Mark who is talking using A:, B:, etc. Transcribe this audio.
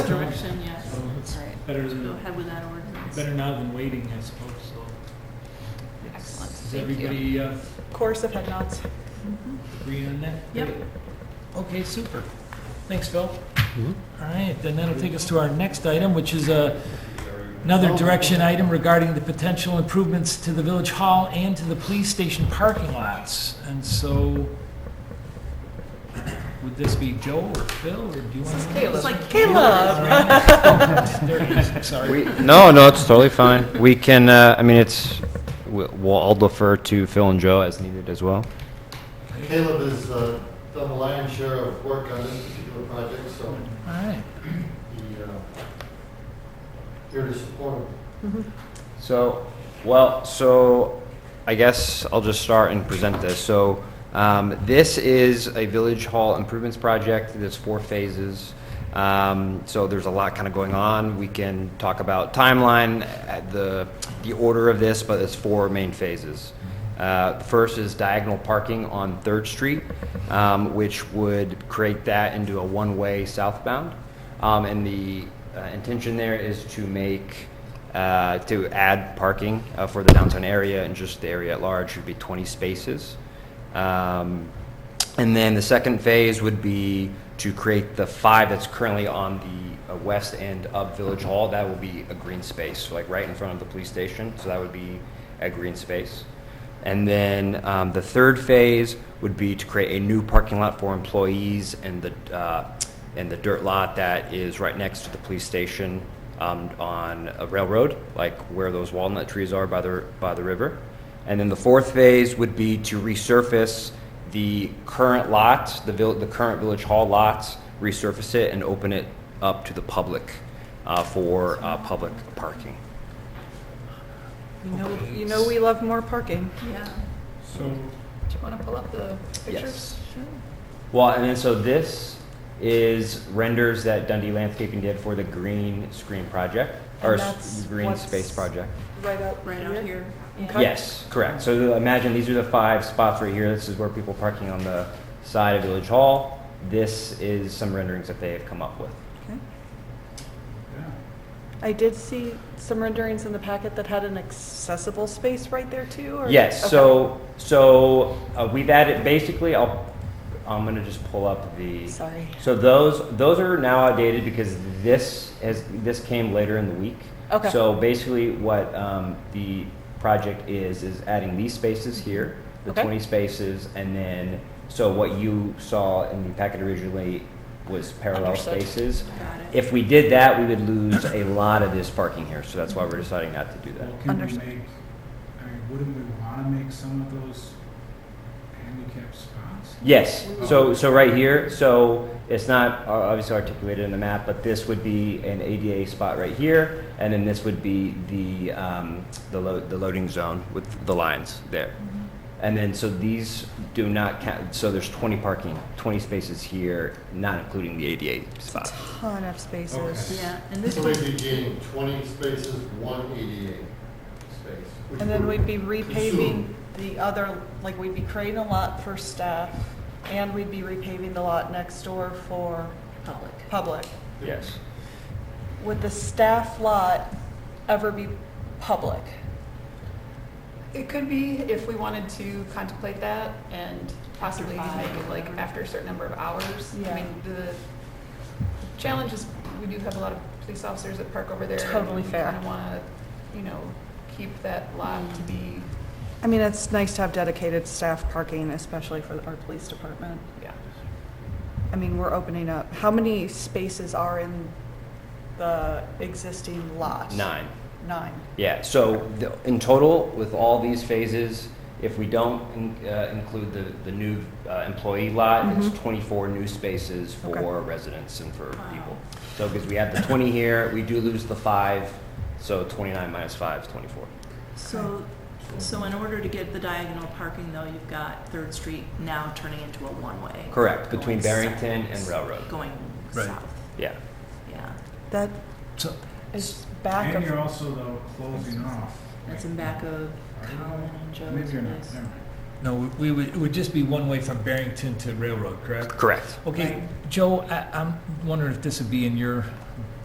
A: direction, yes.
B: So it's
C: All right.
B: better
A: Go
B: than,
A: ahead with that ordinance.
B: better now than waiting, I suppose, so.
C: Excellent,
B: Does
C: thank you.
B: everybody uh,
D: Course of head nods.
B: agree on that?
A: Yep.
B: Great. Okay, super. Thanks, Phil. All right, then that'll take us to our next item, which is uh, another direction item regarding the potential improvements to the village hall and to the police station parking lots. And so, would this be Joe or Phil, or do you want to?
A: It's like
D: Caleb.
B: There he is, sorry.
E: We, no, no, it's totally fine. We can, uh, I mean, it's, we- we'll, I'll defer to Phil and Joe as needed as well.
F: Caleb has uh, done the lion's share of work on this particular project, so
B: All right.
F: he, uh, here to support him.
E: So, well, so I guess I'll just start and present this. So, um, this is a village hall improvements project. There's four phases. Um, so there's a lot kind of going on. We can talk about timeline, uh, the, the order of this, but there's four main phases. Uh, the First is diagonal parking on Third Street, um, which would create that into a one-way southbound. Um, and the uh, intention there is to make, uh, to add parking uh, for the downtown area and just the area at large would be 20 spaces. Um, and then the second phase would be to create the five that's currently on the uh, west end of Village Hall. That will be a green space, like right in front of the police station. So that would be a green space. And then um, the third phase would be to create a new parking lot for employees and the, uh, and the dirt lot that is right next to the police station um, on a railroad, like where those walnut trees are by the, by the river. And then the fourth phase would be to resurface the current lot, the vill, the current Village Hall lots, resurface it and open it up to the public uh, for uh, public parking.
D: You know, you know we love more parking.
A: Yeah.
B: So,
C: Do you want to pull up the pictures?
E: Yes. Well, and then so this is renders that Dundee Landscaping did for the green screen project, or
D: And
E: s-
D: that's
E: green
D: what's-
E: space project.
D: Right out,
A: Right out here. Yeah.
D: Okay.
E: Yes, correct. So the- imagine these are the five spots right here. This is where people parking on the side of Village Hall. This is some renderings that they have come up with.
D: Okay. I did see some renderings in the packet that had an accessible space right there too, or?
E: Yes,
D: Okay.
E: so, so uh, we've added, basically, I'll, I'm gonna just pull up the.
D: Sorry.
E: So those, those are now outdated because this has, this came later in the week.
D: Okay.
E: So basically what, um, the project is, is adding these spaces here, the
D: Okay.
E: twenty spaces, and then, so what you saw in the packet originally was parallel
D: Understood.
E: spaces.
A: Got it.
E: If we did that, we would lose a lot of this parking here, so that's why we're deciding not to do that.
G: Well, can we
D: Understood.
G: make, I mean, wouldn't we want to make some of those handicap spots?
E: Yes, so, so right here, so it's not uh, obviously articulated in the map, but this would be an ADA spot right here, and then this would be the, um, the load, the loading zone with the lines there. And then, so these do not count, so there's twenty parking, twenty spaces here, not including the ADA spot.
D: Ton of spaces.
A: Yeah, and this
F: So
A: one,
F: we'd be gaining 20 spaces, one ADA space. which
D: And then we'd
F: would
D: be repaving
F: consume-
D: the other, like we'd be creating a lot for staff and we'd be repaving the lot next door for
A: public.
D: public.
E: Yes.
D: Would the staff lot ever be public?
C: It could be if we wanted to contemplate that and possibly
A: After
C: make
A: five.
C: it like after a certain number of hours.
D: Yeah.
C: I mean, the challenge is we do have a lot of police officers that park over there.
D: Totally fair.
C: And we kind of want to, you know, keep that lot to be,
D: I mean, it's nice to have dedicated staff parking, especially for our police department.
C: yeah.
D: I mean, we're opening up, how many spaces are in the existing lot?
E: Nine.
D: Nine.
E: Yeah, so the- in total, with all these phases, if we don't in- uh, include the, the new uh, employee lot, it's 24 new spaces
D: Okay.
E: for residents and for
A: Wow.
E: people. So, because we have the 20 here, we do lose the five, so 29 minus 5 is 24.
A: So, so in order to get the diagonal parking though, you've got Third Street now turning into a one-way.
E: Correct, between
A: Going south.
E: Barrington and Railroad.
A: Going
G: Right.
A: south,
E: Yeah.
A: yeah.
D: That
B: so,
D: is back
G: And you're
D: of,
G: also though closing off.
A: That's in back of Colin and Joe's.
G: Maybe you're not,
A: place.
G: never mind.
B: no, we would, it would just be one way from Barrington to Railroad, correct?
E: Correct.
B: Okay, Joe, I, I'm wondering if this would be in your